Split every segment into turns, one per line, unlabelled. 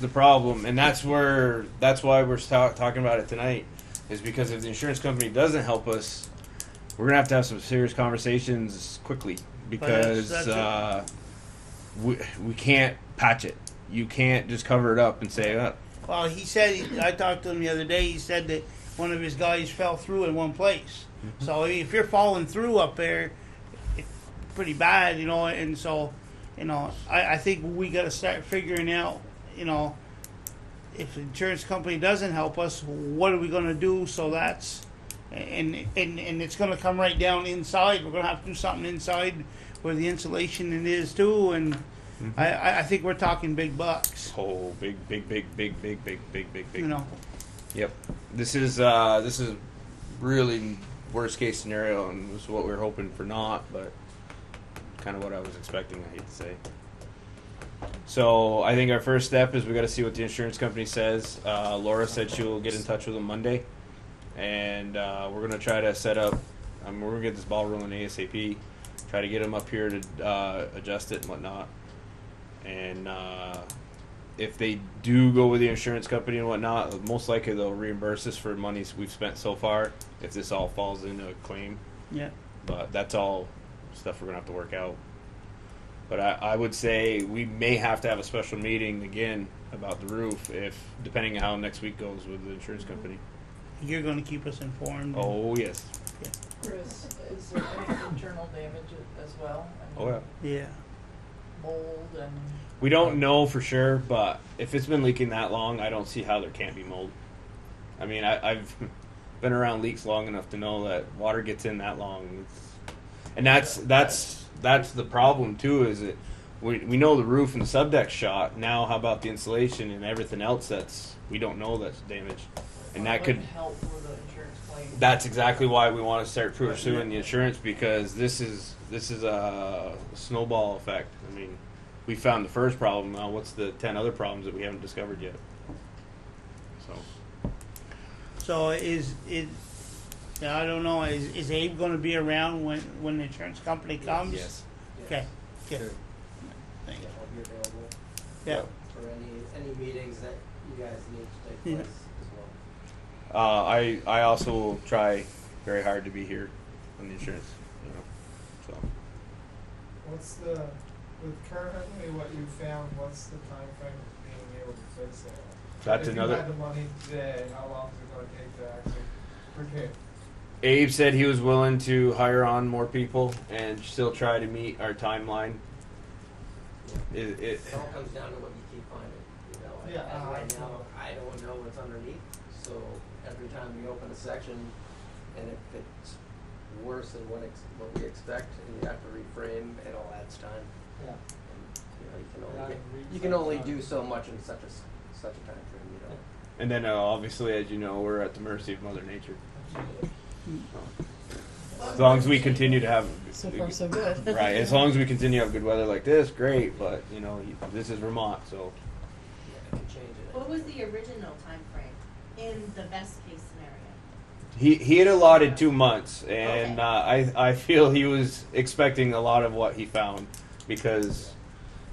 the problem, and that's where that's why we're ta- talking about it tonight, is because if the insurance company doesn't help us, we're gonna have to have some serious conversations quickly because
that's it.
uh, we we can't patch it. You can't just cover it up and say, uh,
Well, he said, I talked to him the other day, he said that one of his guys fell through in one place. So if you're falling through up there, it's pretty bad, you know, and so, you know, I, I think we got to start figuring out, you know, if the insurance company doesn't help us, what are we going to do? So that's, and, and, and it's going to come right down inside. We're going to have to do something inside where the insulation it is too. And I I, I think we're talking big bucks,
"Oh, big, big, big, big, big, big, big, big, big."
you know.
Yep. This is uh, this is really worst case scenario, and this is what we are hoping for not, but kind of what I was expecting. I hate to say. So I think our first step is we got to see what the insurance company says. Uh, Laura said she will get in touch with them Monday, and uh, we're gonna try to set up. I mean, we're gonna get this ball rolling ASAP. Try to get them up here to uh, adjust it and whatnot, and. Uh, if they do go with the insurance company and whatnot, most likely they'll reimburse us for monies we've spent so far if this all falls into a claim.
Yeah.
But that's all stuff we're gonna have to work out. But I, I would say we may have to have a special meeting again about the roof if depending on how next week goes with the insurance company.
You're going to keep us informed.
Oh yes.
Chris, is there any internal damage a- as well? I
Oh
mean,
yeah.
Yeah.
Mold and,
We don't know for sure, but if it's been leaking that long, I don't see how there can't be mold. I mean, I, I've been around leaks long enough to know that water gets in that long, it's, and that's that's that's the problem too. Is it we we know the roof and the subdeck shot. Now, how about the insulation and everything else that's we don't know that's damaged, and
well,
that
it
could
wouldn't help with the insurance claim.
that's exactly why we want to start pursuing the insurance because this is this is a snowball effect. I mean, we found the first problem. Now, what's the ten other problems that we haven't discovered yet? So
So is is yeah, I don't know. Is is Abe going to be around when when the insurance company
Um,
comes?
yes,
Okay.
Sure.
Good. Thank you.
Yeah, I'll be available
Yeah.
for any, any meetings that you guys need to take
Yeah.
place as well.
uh, I I also will try very hard to be here on the insurance. You know, so
What's the, with currently what you found, what's the timeframe of being able to fix it?
that's
If you had
another.
the money today, how long is it gonna take to actually prepare?
Abe said he was willing to hire on more people and still try to meet our timeline. It, it,
It all comes down to what you keep finding, you know,
Yeah,
as
uh,
right now, I don't know what's underneath, so every time we open a section, and if it's worse than what ex, what we expect, and you have to reframe, it all adds time.
Yeah.
And, You know, you can
Yeah,
only, get-
read
you can only
sometime.
do so much in such a, s- such a time frame. you know.
And then, uh, obviously, as you know, we're at the mercy of Mother Nature. As long as we continue to have
So far, so good.
right, as long as we continue to have good weather like this, great. But you know, this is Vermont, so
Yeah, it can change it.
What was the original time frame in the best case scenario?
he he had allotted two months, and
Okay.
uh, I I feel he was expecting a lot of what he found because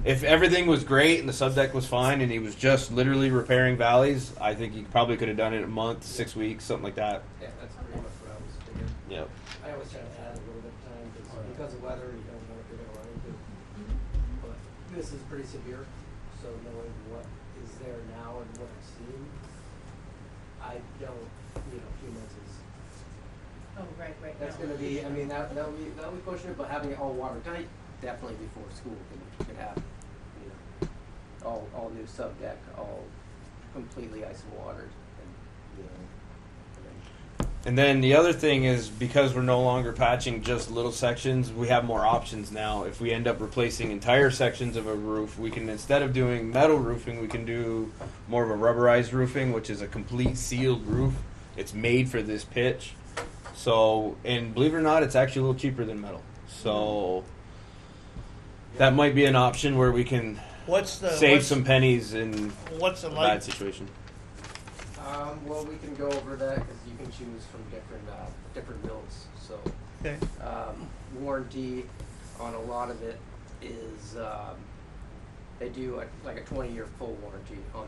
if everything was great and the subdeck was fine and he was just literally repairing valleys, I think he probably could have done it in a month, six weeks, something like that.
Yeah, that's pretty much what I was thinking.
Yep.
I always try to add a little bit of time, because, because of weather, you don't know what you're gonna run into. But this is pretty severe, so knowing what is there now and what I've seen, I don't, you know, a few months is,
Oh, right, right.
that's
no.
gonna be, I mean, that, that'll be, that'll be pushing it, but having it all watertight, definitely before school could, could happen, you know. All, all new subdeck, all completely ice and watered, and, you know, and then
And then the other thing is because we're no longer patching just little sections, we have more options now. If we end up replacing entire sections of a roof, we can instead of doing metal roofing, we can do more of a rubberized roofing, which is a complete sealed roof. It's made for this pitch. So, and believe it or not, it's actually a little cheaper than metal. So that might be an option where we can
What's the
save
what's,
some pennies in
What's the
a bad
light?
situation.
Um, well, we can go over that because you can choose from different, uh, different mills, so,
Okay.
um, warranty on a lot of it is, um, they do a, like a twenty-year full warranty on the